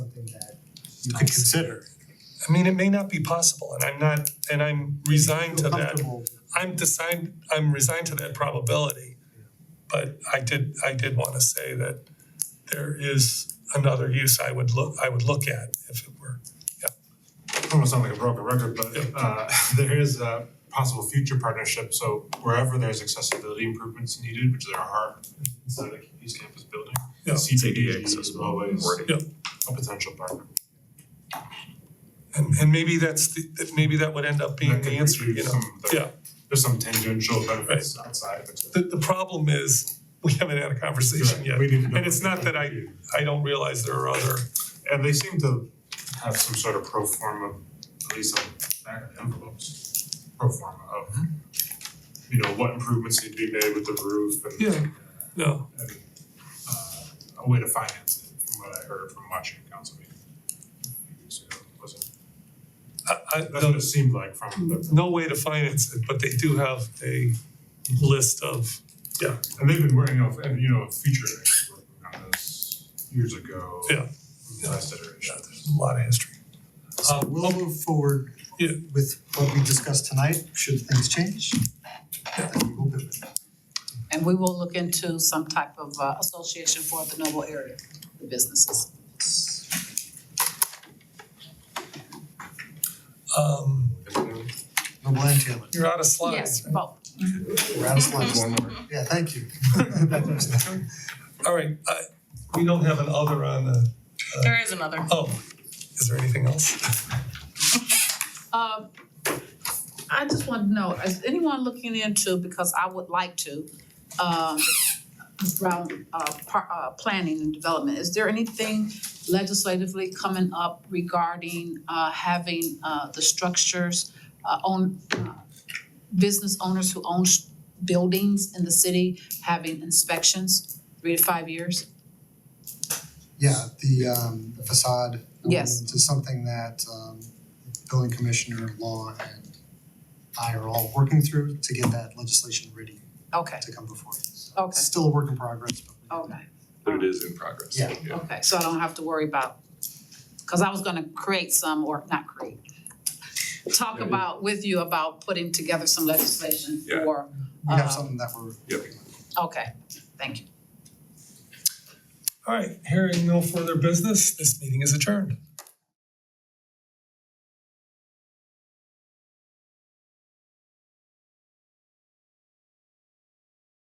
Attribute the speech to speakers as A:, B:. A: you could consider.
B: I mean, it may not be possible and I'm not, and I'm resigned to
A: Feel
B: that.
A: comfortable.
B: I'm designed, I'm resigned to that probability. But I did, I did wanna say that there is another use I would look, I would look at if it were.
C: I don't sound like a broken record, but uh there is a possible future partnership, so wherever there's accessibility improvements needed, which there are inside the East Campus building.
B: Yeah.
C: CTE is always
B: Yeah.
C: a potential partner.
B: And and maybe that's the, that maybe that would end up being
C: That
B: the
C: could
B: answer, you
C: reduce
B: know?
C: some of the-
B: Yeah.
C: There's some tangential benefits outside of it.
B: The the problem is, we haven't had a conversation
C: Right,
B: yet.
C: we need to know
B: And it's
C: what
B: not that I
C: do.
B: I don't realize there are other,
C: And they seem to have some sort of pro forma, at least on the back of the envelopes, pro forma of
B: Mm-hmm.
C: you know, what improvements need to be made with the roof and
B: Yeah. no.
C: and, uh, a way to finance it, from what I heard from watching a council meeting. a few weeks ago. Wasn't-
B: I, I,
C: That's what
B: no,
C: it seemed like from the,
B: no way to finance it, but they do have a list of,
C: and they've been working off, and you know, Future actually working on this years ago.
B: Yeah.
C: Last iteration.
B: yeah, there's a lot of history.
A: Uh, we'll move forward
B: Um, Yeah.
A: with what we discussed tonight, should things change. then we'll do it.
D: And we will look into some type of uh, association for the Noble area, the businesses.
B: Um,
A: Noble and Taylor,
B: you're out of
D: Yes,
B: slides. right?
D: both.
A: we're out of slides. Yeah, thank you.
B: All right, I, we don't have an other on the,
E: There is another.
B: oh, is there anything else?
D: Um, I just want to know, is anyone looking into, because I would like to, um, around, uh, par- uh, planning and development, is there anything legislatively coming up regarding, uh, having, uh, the structures, uh, own, uh, business owners who own sh- buildings in the city having inspections, three to five years?
A: Yeah, the um the facade.
D: Yes.
A: It's something that um building commissioner, law and I are all working through to get that legislation ready
D: Okay,
A: to come before us. It's
D: okay,
A: Still a work in progress, but we-
D: okay.
F: but it is in progress.
A: Yeah.
D: Okay, so I don't have to worry about, cause I was gonna create some, or not create, talk
F: Yeah.
D: about, with you about putting together some legislation
F: Yeah.
D: for,
A: we have
D: Uh,
A: something that we're
F: Yep.
A: working on.
D: okay, thank you.
B: All right, hearing no further business, this meeting is adjourned.